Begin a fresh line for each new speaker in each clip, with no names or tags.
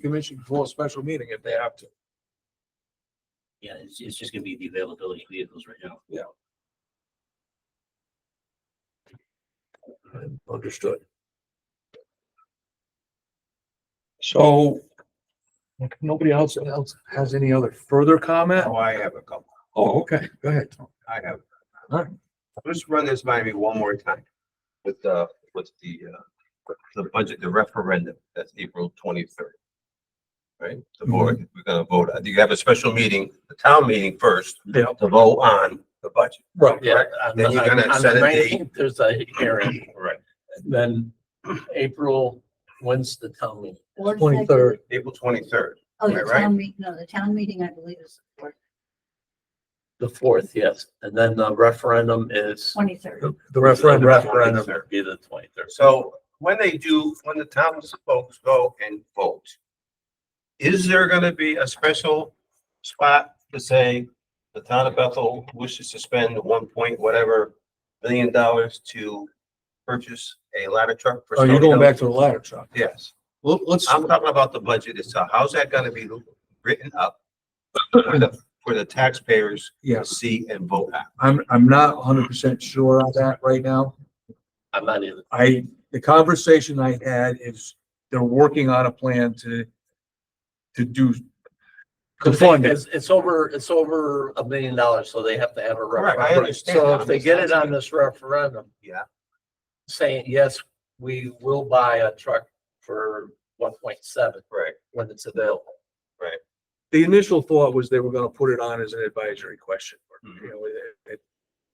commission before a special meeting if they have to.
Yeah, it's, it's just gonna be the availability of vehicles right now.
Understood. So if nobody else else has any other further comment?
Oh, I have a couple.
Oh, okay, go ahead. Tom.
I have.
All right.
Let's run this by me one more time with, uh, with the, uh, with the budget, the referendum, that's April twenty-third. Right? The
Mm-hmm.
board, we're gonna vote. on- You have a special meeting, the town meeting first
Yeah,
to vote on the budget.
right.
Yeah.
Correct.
on
Then
the-
you're gonna
on- on
set
the
a date.
19th, There's a hearing,
Right.
then April, when's the town meeting?
Board of
23rd.
Selectmen-
April twenty-third.
Oh,
Am I
the
right?
town meeting, no, the town meeting, I believe, is
The fourth, yes, and then the referendum is.
twenty-third.
The the referendum.
Referendum.
would Be the twenty-third.
So when they do, when the town folks go and vote, is there gonna be a special spot to say the town of Bethel wishes to spend one point whatever million dollars to purchase a ladder truck? for
Are you
Stony
Oh, going
Hill?
back to the ladder truck?
Yes,
Well, let's,
I'm talking about the budget itself. How's that gonna be written up for the, for the taxpayers to
yes,
see and vote on?
I'm, I'm not hundred percent sure on that right now.
I'm not either.
I, the conversation I had is they're working on a plan to, to do, to fund it.
It's, it's over, it's over a million dollars, so they have to have a
Correct, I
referendum.
understand.
So if they get it on this referendum.
Yeah.
Saying, yes, we will buy a truck for one point seven
Right,
when it's available.
the initial thought was they were gonna put it on as an advisory question.
Mhm.
You know, it- it-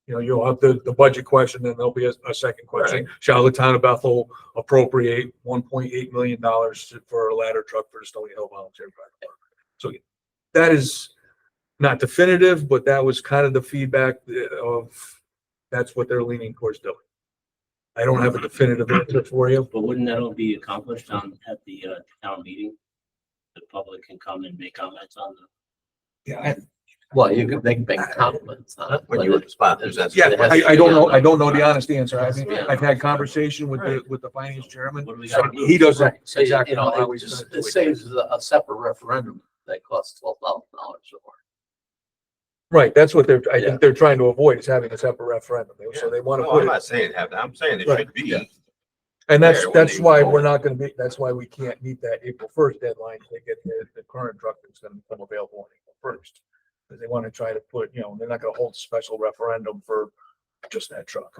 you know, you'll have the, the budget question, then there'll be a, a second question. Shall the town of Bethel appropriate one point eight million dollars for a ladder truck for the Stony Hill Volunteer Fire Department? So that is not definitive, but that was kind of the feedback uh, of, that's what they're leaning towards doing. I don't have a definitive answer for you.
But wouldn't that all be accomplished on, at the, uh, town meeting? The public can come and make comments on the,
Yeah,
Well, you can, they can make compliments on it.
when
but
you were
it-
the sponsors, that's.
Yeah,
It has
I,
to
I
be
don't
on
know,
the-
I don't know the honest answer. I mean,
Yeah.
I've had conversation with the, with the finance chairman.
what do we
So
got?
He doesn't
Right, so you-
exactly
you
know how
know, it
he's
just,
gonna do
it
it.
saves a a separate referendum that costs twelve thousand dollars or more.
Right, that's what they're, I
Yeah.
think they're trying to avoid is having a separate referendum. So
Yeah.
they want to
No,
put
I'm
it,
not saying have that. I'm saying it
Right,
should
yeah.
be.
and that's,
there when
that's
they
why
vote.
we're not going to be, that's why we can't meet that April first deadline to get the, the current truck that's going to become available on April first. Because they want to try to put, you know, they're not going to hold a special referendum for just that truck.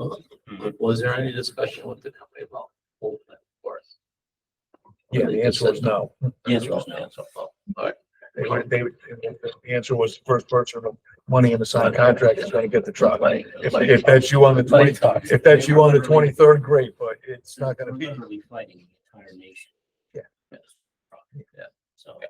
But Was there any discussion with the company about holding that for us?
Yeah, the answer is no.
The answer was no.
Answer, well, all right.
They, would- they, would- the answer was first person of money in the signed contract is gonna get the truck.
Money-
If,
money
if that's you on the
talks. Money
twenty,
talks.
if that's you on the twenty-third, great, but it's not gonna be.
We're Fighting the entire nation.
Yeah.
Yeah. So.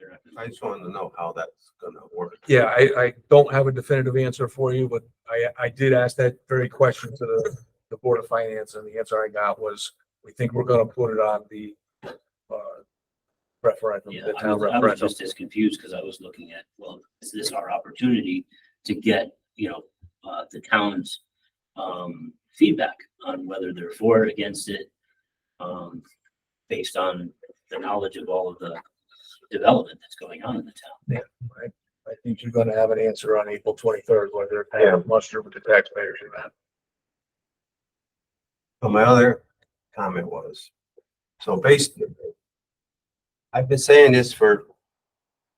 they're not
I
gonna-
just wanted to know how that's gonna work.
Yeah, I, I don't have a definitive answer for you, but I, I did ask that very question to the, the Board of Finance and the answer I got was, we think we're gonna put it on the, uh, referendum,
Yeah,
the
I
town
was, I was
referendum.
just as confused because I was looking at, well, is this our opportunity to get, you know, uh, the town's um, feedback on whether they're for or against it, um, based on the knowledge of all of the development that's going on in the town.
I think you're gonna have an answer on April twenty-third, whether
Yeah.
it's muster with the taxpayers or not.
But my other comment was, so basically, I've been saying this for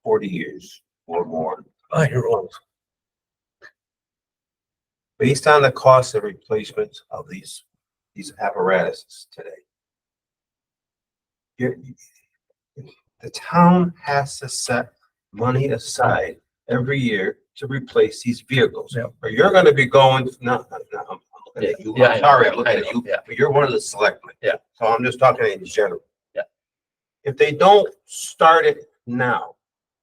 forty years or more.
Oh, you're old.
Based on the cost of replacement of these, these apparatuses today. you're- The town has to set money aside every year to replace these vehicles.
Yep.
Or you're gonna be going, no, no, no, I'm looking at you,
Yeah, I
I'm
know,
sorry, I'm
I
looking
know,
at you,
yeah.
but you're one of the selectmen.
Yeah.
So I'm just talking in general.
Yeah.
If they don't start it now,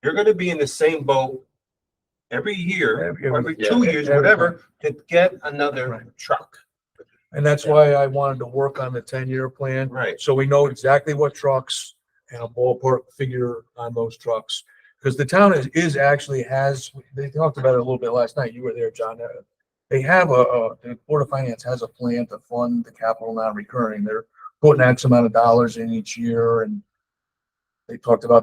you're gonna be in the same boat every year,
Every-
or every
yeah,
two years,
every
whatever, to get another
Right.
truck.
And that's why I wanted to work on the ten-year plan,
Right.
so we know exactly what trucks and a ballpark figure on those trucks. Because the town is, is actually has, they talked about it a little bit last night, you were there, John. uh, They have a, a, the Board of Finance has a plan to fund the capital non-recurring, they're putting X amount of dollars in each year and They talked about